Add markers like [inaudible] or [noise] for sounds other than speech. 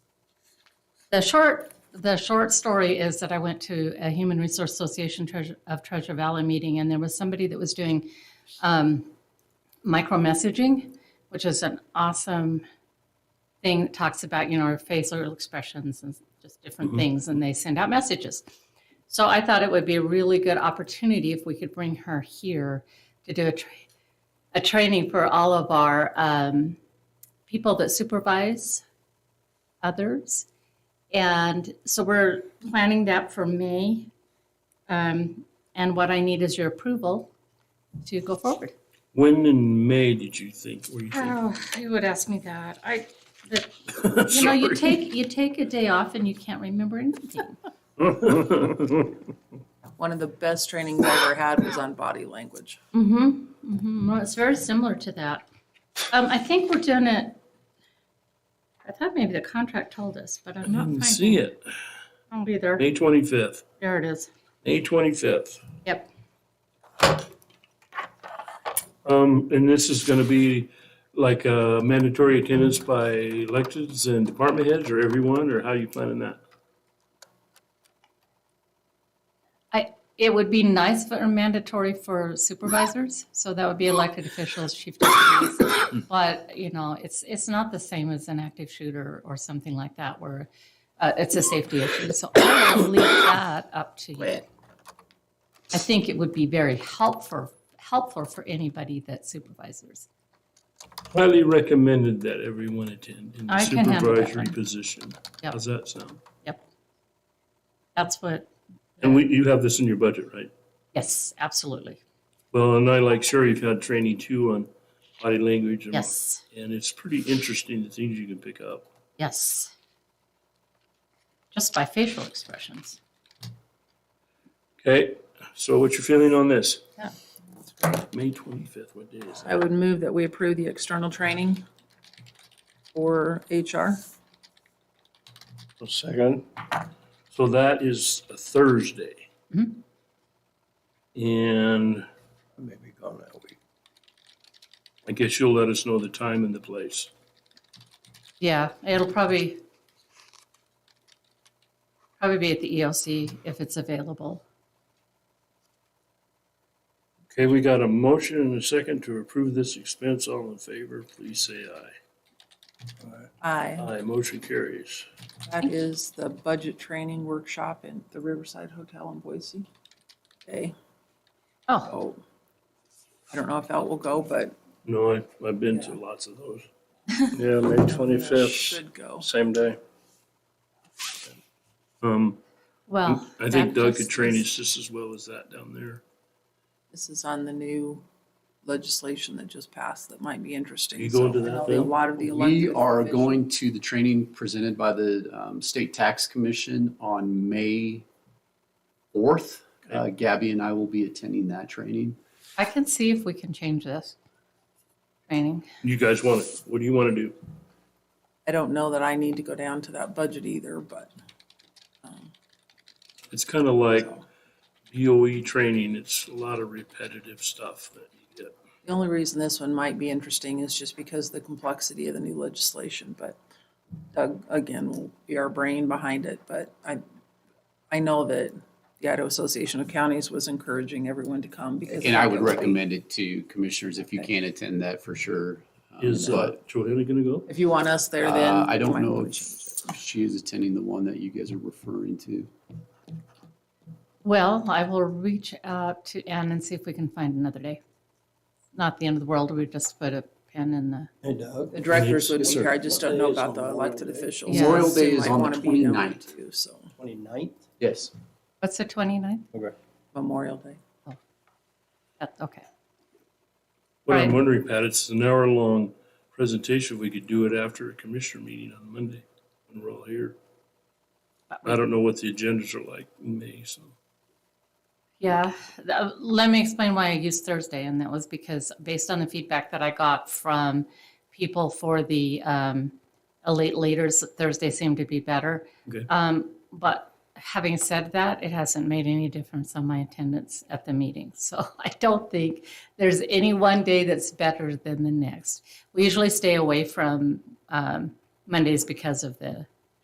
The short, the short story is that I went to a Human Resource Association Treasure- of Treasure Valley meeting, and there was somebody that was doing um, micro messaging, which is an awesome thing that talks about, you know, our facial expressions and just different things, and they send out messages. So I thought it would be a really good opportunity if we could bring her here to do a, tra- a training for all of our um, people that supervise others. And so we're planning that for May. Um, and what I need is your approval to go forward. When in May did you think, were you thinking? Oh, you would ask me that. I, the, Uh, you know, [laughs] you take, you take a day off and you can't remember anything. Sorry. One of the best trainings I ever had was on body language. [laughs] Mm-hmm, mm-hmm. Well, it's very similar to that. Um, I think we're doing it, I thought maybe the contract told us, but I'm not finding Didn't Mm, see it. it either. May twenty-fifth, There it is. May twenty-fifth. Yep. Um, and this is gonna be like uh mandatory attendance by electeds and department heads or everyone, or how you planning that? I, it would be nice if it were mandatory for supervisors, so that would be elected officials, chief deputies. But, you know, it's, it's not the same as an active shooter or something like that where uh, it's a safety issue. So I will leave that up to you. I think it would be very helpful, helpful for anybody that supervisors. Highly recommended that everyone attend in the I can handle that supervisory one. position. Yep. How's that sound? Yep. That's what, And we, you have this in your budget, right? yes, absolutely. Well, and I like sure you've had training too on body language. and- Yes, And it's pretty interesting the things you can pick up. yes. Just by facial expressions. Okay, so what's your feeling on this? Yeah. May twenty-fifth, what day is that? I would move that we approve the external training for HR. A second. So that is a Thursday. Mhm. And Maybe gone that week. I guess you'll let us know the time and the place. Yeah, it'll probably, probably be at the EOC if it's available. Okay, we got a motion and a second to approve this expense. All in favor, please say aye. Aye. Aye, motion carries. That is the budget training workshop in the Riverside Hotel in Boise. Okay, Oh, oh, I don't know if that will go, but No, I, I've been to lots of those. Yeah, May it twenty-fifth, should go. same day. Um, well. I think Oh, that Doug could just train is- us just as well as that down there. This is on the new legislation that just passed that might be interesting. You going to So, I that know A thing? lot of the elected We are officials- going to the training presented by the um, State Tax Commission on May 4th. Uh, Gabby and I will be attending that training. I can see if we can change this training. You guys want it? What do you want to do? I don't know that I need to go down to that budget either, but. um, It's kind of like so. DOE training. It's a lot of repetitive stuff that you get. The only reason this one might be interesting is just because of the complexity of the new legislation, but Doug, again, will be our brain behind it, but I, I know that the Idaho Association of Counties was encouraging everyone to come because. And I would they- recommend it to commissioners if you can attend that for sure. Um, Is uh, but, Johanna going to go? If you want us there, then. uh, I you might don't know wanna if change it. she is attending the one that you guys are referring to. Well, I will reach out to Ann and see if we can find another day. Not the end of the world, we just put a pin in the, Hey Doug, The directors would be Yes, sir. here, I just don't know about the Memorial Day is elected on Memorial Day. officials. Memorial so they Day is might on the wanna be down 29th. too, So twenty-ninth? Yes. what's the 29ninth? Okay. Memorial Day. That- Okay. What I'm Right. wondering, Pat, it's an hour-long presentation. We could do it after a commissioner meeting on Monday when we're all here. I don't know what the agendas are like in May, so. Yeah, th- let me explain why I used Thursday, and that was because based on the feedback that I got from people for the um, elite leaders, Thursday seemed to be better. Okay. Um, but having said that, it hasn't made any difference on my attendance at the meeting. So [laughs] I don't think there's any one day that's better than the next. We usually stay away from um, Mondays because of the